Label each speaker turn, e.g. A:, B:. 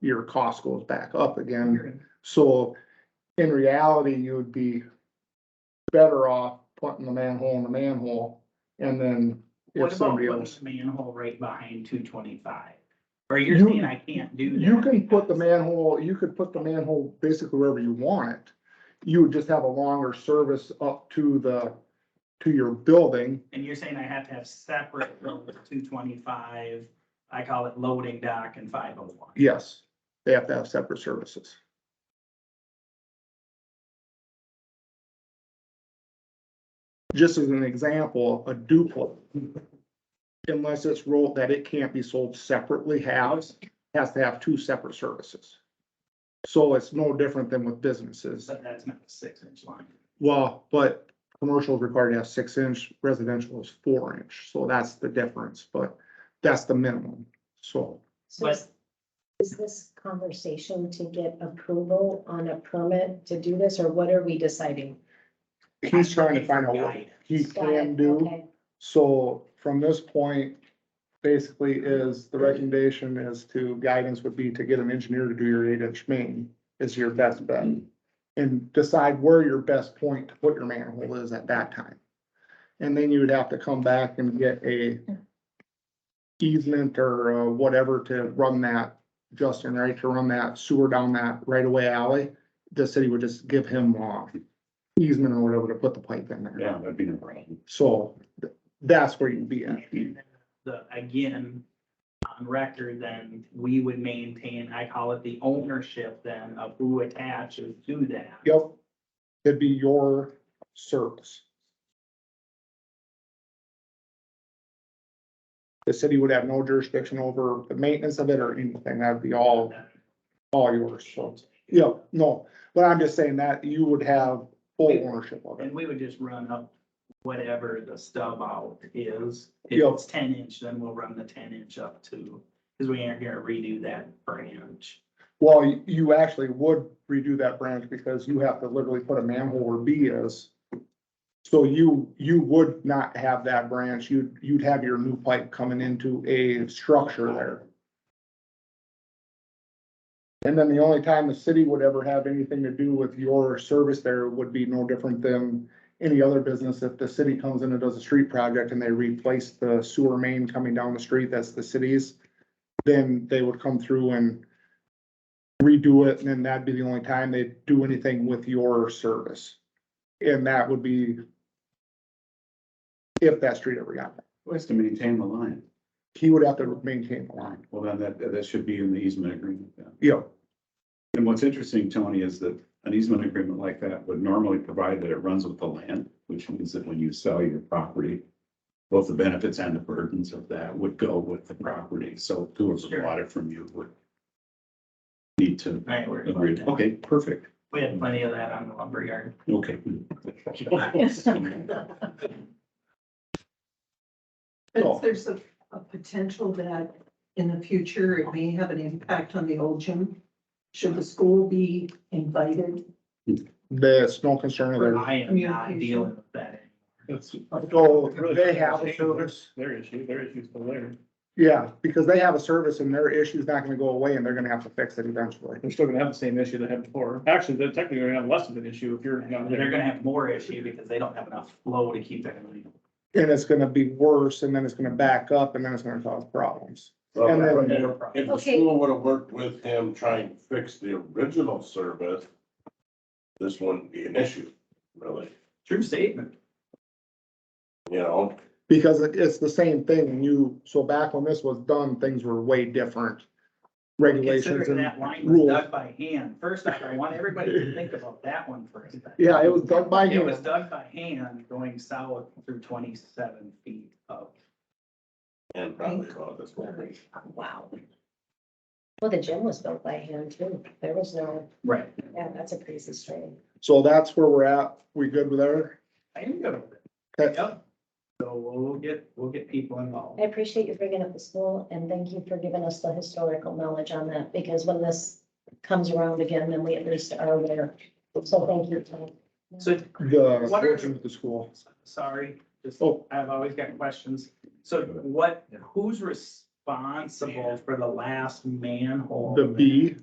A: your cost goes back up again. So in reality, you would be better off putting the manhole in the manhole and then
B: What
A: if
B: about
A: somebody
B: putting
A: else.
B: the manhole right behind two twenty-five? Or you're
A: You-
B: saying I can't do that?
A: You can put the
B: because-
A: manhole, you could put the manhole basically wherever you want it. You would just have a longer service up to the, to your building.
B: And you're saying I have to have separate road two twenty-five, I call it loading dock and five oh one.
A: Yes, they have to have separate services. Just as an example, a duplex. Unless it's ruled that it can't be sold separately, has, has to have two separate services. So it's no different than with businesses.
B: But that's not a six-inch line.
A: Well, but commercial is required to have six inch, residential is four inch, so that's the difference, but that's the minimum, so.
C: So is- is this conversation to get approval on a permit to do this, or what are we deciding?
A: He's trying to find out what he
C: Got it,
A: can do,
C: okay.
A: so from this point, basically is, the recommendation is to, guidance would be to get an engineer to do your eight inch main is your best bet.
D: Hmm.
A: And decide where your best point to put your manhole is at that time. And then you would have to come back and get a easement or uh, whatever to run that, Justin, right, to run that sewer down that right away alley. The city would just give him uh easement or whatever to put the pipe in there.
D: Yeah, that'd be no problem. Hmm.
A: So th- that's where you'd be at.
B: The, again, on record, then we would maintain, I call it the ownership then of who attaches to that.
A: Yep. It'd be your service. The city would have no jurisdiction over the maintenance of it or anything. That'd be all, all yours. So, yeah, no, but I'm just saying that you would have full ownership of it.
B: And we would just run up whatever the stub out is. If
A: Yep.
B: it's ten inch, then we'll run the ten inch up to, because we aren't gonna redo that branch.
A: Well, you- you actually would redo that branch because you have to literally put a manhole where B is. So you, you would not have that branch. You'd, you'd have your new pipe coming into a structure there. And then the only time the city would ever have anything to do with your service there would be no different than any other business. If the city comes in and does a street project and they replace the sewer main coming down the street, that's the city's, then they would come through and redo it, and then that'd be the only time they do anything with your service. And that would be if that street ever got, there.
D: Ways to maintain the line.
A: he would have to maintain the line.
D: Well, then that, that should be in the easement agreement then.
A: Yeah,
D: And what's interesting, Tony, is that an easement agreement like that would normally provide that it runs with the land, which means that when you sell your property, both the benefits and the burdens of that would go with the property. So whoever
B: Sure.
D: bought it from you would need to
B: Right, we're.
D: agree. Okay, perfect.
B: We had plenty of that on the lumberyard.
D: Okay.
E: But
A: Oh.
E: if there's a, a potential that in the future, it may have an impact on the old gym. Should the school be invited?
A: there's no concern of theirs.
B: I am not dealing with that.
A: So they have a service,
F: Their issue, their issue's still there.
A: yeah, because they have a service and their issue's not gonna go away and they're gonna have to fix it eventually.
F: They're still gonna have the same issue they had before. Actually, they're technically gonna have less of an issue if you're not
B: They're
F: there.
B: gonna have more issue because they don't have enough flow to keep that. moving.
A: And it's gonna be worse and then it's gonna back up and then it's gonna cause problems. And
G: Well,
A: then-
G: If if the
C: Okay.
G: school would have worked with him trying to fix the original service, this wouldn't be an issue, really,
B: True statement.
G: you know?
A: Because it- it's the same thing, and you, so back when this was done, things were way different. Regulations
B: Considering
A: and
B: that line was
A: rules.
B: dug by hand. First off, I want everybody to think about that one first.
A: Yeah, it was done by
B: It was
A: hand.
B: dug by hand going south through twenty-seven feet of
G: And probably about this one.
C: Wow. Well, the gym was built by hand too. There was no,
B: Right.
C: yeah, that's a crazy story.
A: So that's where we're at. We good with that?
B: I am good with it.
A: Okay.
B: Yep. So we'll get, we'll get people involved.
C: I appreciate you bringing up the school and thank you for giving us the historical knowledge on that, because when this comes around again, then we at least are aware. So thank you, Tom.
B: So
A: The
B: What are-
A: with the school.
B: Sorry, just,
A: Oh.
B: I've always got questions. So what, who's responsible for the last manhole?
A: The B